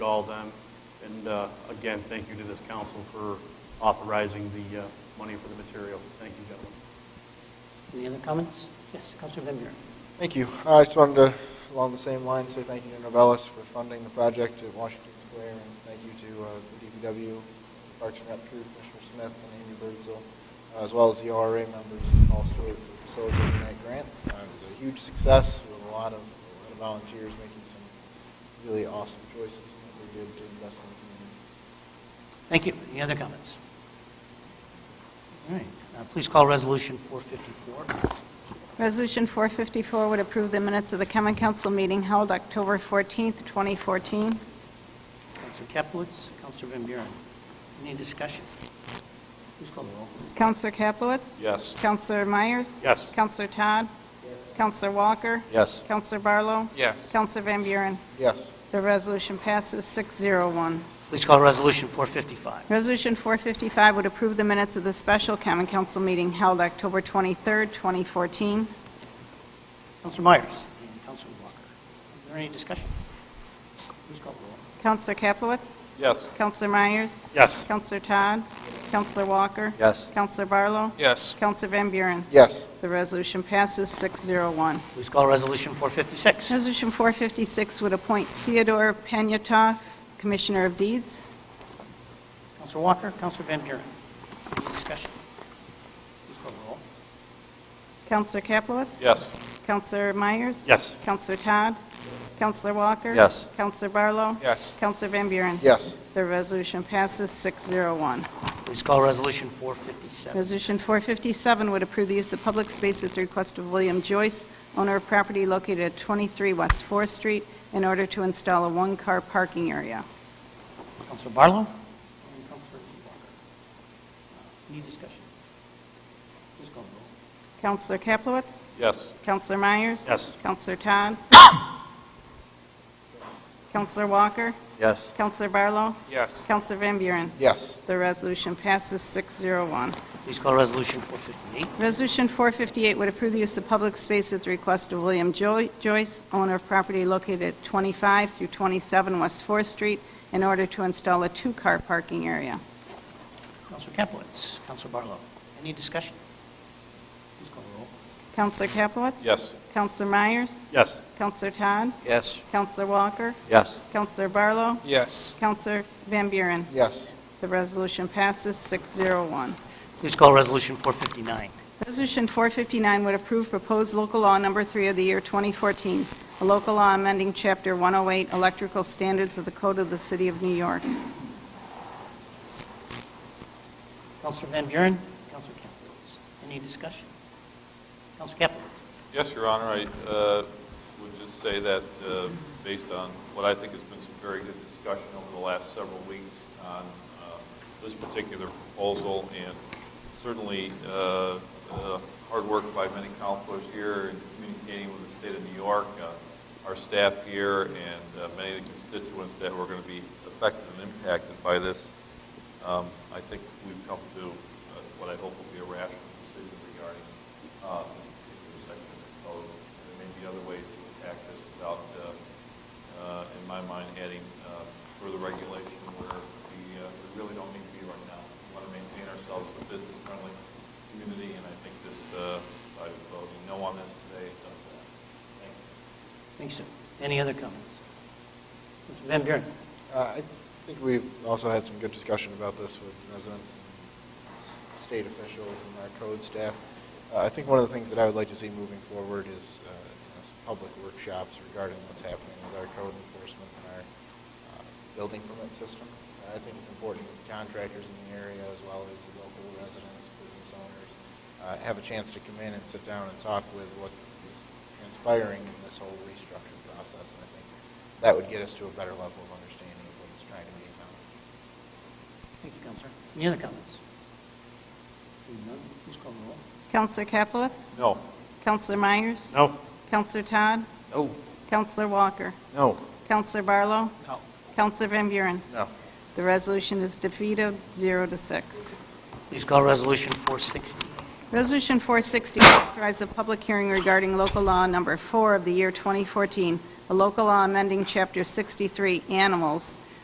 to all them. And uh, again, thank you to this council for authorizing the uh, money for the material. Thank you, gentlemen. Any other comments? Yes, Councilor Van Buren. Thank you. I just wanted to, along the same line, say thank you to Novellis for funding the project at Washington Square, and thank you to uh, the DPW, Parks and Rec crew, Commissioner Smith and Amy Birdsell, as well as the ORA members, Paul Stewart, for facilitating that grant. Uh, It was a huge success with a lot of a lot of volunteers making some really awesome choices that they did to invest in the community. Thank you. Any other comments? All right, Uh, please call Resolution 454. Resolution 454 would approve the minutes of the common council meeting held October 14th, 2014. Councilor Capelitz, Councilor Van Buren. Any discussion? Please call the roll. Counselor Capelitz? Yes. Counselor Myers? Yes. Counselor Todd? Counselor Walker? Yes. Counselor Barlow? Yes. Counselor Van Buren? Yes. The resolution passes 601. Please call Resolution 455. Resolution 455 would approve the minutes of the special common council meeting held October 23rd, 2014. Councilor Myers and Councilor Walker. Is there any discussion? Please call the roll. Counselor Capelitz? Yes. Counselor Myers? Yes. Counselor Todd? Counselor Walker? Yes. Counselor Barlow? Yes. Counselor Van Buren? Yes. The resolution passes 601. Please call Resolution 456. Resolution 456 would appoint Theodore Penyatov, Commissioner of Deeds. Councilor Walker, Councilor Van Buren. Any discussion? Please call the roll. Counselor Capelitz? Yes. Counselor Myers? Yes. Counselor Todd? Counselor Walker? Yes. Counselor Barlow? Yes. Counselor Van Buren? Yes. The resolution passes 601. Please call Resolution 457. Resolution 457 would approve the use of public space at the request of William Joyce, owner of property located at 23 West 4th Street, in order to install a one-car parking area. Councilor Barlow? And Councilor Walker. Uh, Any discussion? Please call the roll. Counselor Kaplowitz? Yes. Counselor Myers? Yes. Counselor Todd? Counselor Walker? Yes. Counselor Barlow? Yes. Counselor Van Buren? Yes. The resolution passes 601. Please call Resolution 458. Resolution 458 would approve the use of public space at the request of William Jo- Joyce, owner of property located at 25 through 27 West 4th Street, in order to install a two-car parking area. Councilor Capelitz, Councilor Barlow. Any discussion? Please call the roll. Counselor Kaplowitz? Yes. Counselor Myers? Yes. Counselor Todd? Yes. Counselor Walker? Yes. Counselor Barlow? Yes. Counselor Van Buren? Yes. The resolution passes 601. Please call Resolution 459. Resolution 459 would approve proposed local law number three of the year 2014, a local law amending Chapter 108 Electrical Standards of the Code of the City of New York. Councilor Van Buren, Councilor Capelitz. Any discussion? Councilor Capelitz. Yes, Your Honor, I uh, would just say that uh, based on what I think has been some very good discussion over the last several weeks on uh, this particular proposal, and certainly uh, uh, hard work by many counselors here in communicating with the state of New York, uh, our staff here, and uh, many of the constituents that were going to be affected and impacted by this, um, I think we've come to uh, what I hope will be a rational decision regarding uh, this particular section of the code. And There may be other ways to attack this without, uh, uh, in my mind, adding uh, further regulation where we uh, we really don't need to be right now. We want to maintain ourselves as a business-friendly community, and I think this, uh, by voting no on this today, does that. Thank you. Thank you, sir. Any other comments? Councilor Van Buren. Uh, I think we've also had some good discussion about this with residents and s- state officials and our code staff. Uh, I think one of the things that I would like to see moving forward is uh, you know, some public workshops regarding what's happening with our code enforcement and our uh, building permit system. Uh, I think it's important that contractors in the area, as well as local residents, business owners, uh, have a chance to come in and sit down and talk with what is transpiring in this whole restructure process. And I think that would get us to a better level of understanding of what's trying to be accomplished. Thank you, Councilor. Any other comments? Seeing none, please call the roll. Counselor Capelitz? No. Counselor Myers? No. Counselor Todd? No. Counselor Walker? No. Counselor Barlow? No. Counselor Van Buren? No. The resolution is defeated, zero to six. Please call Resolution 460. Resolution 460 authorizes a public hearing regarding local law number four of the year 2014, a local law amending Chapter 63, Animals,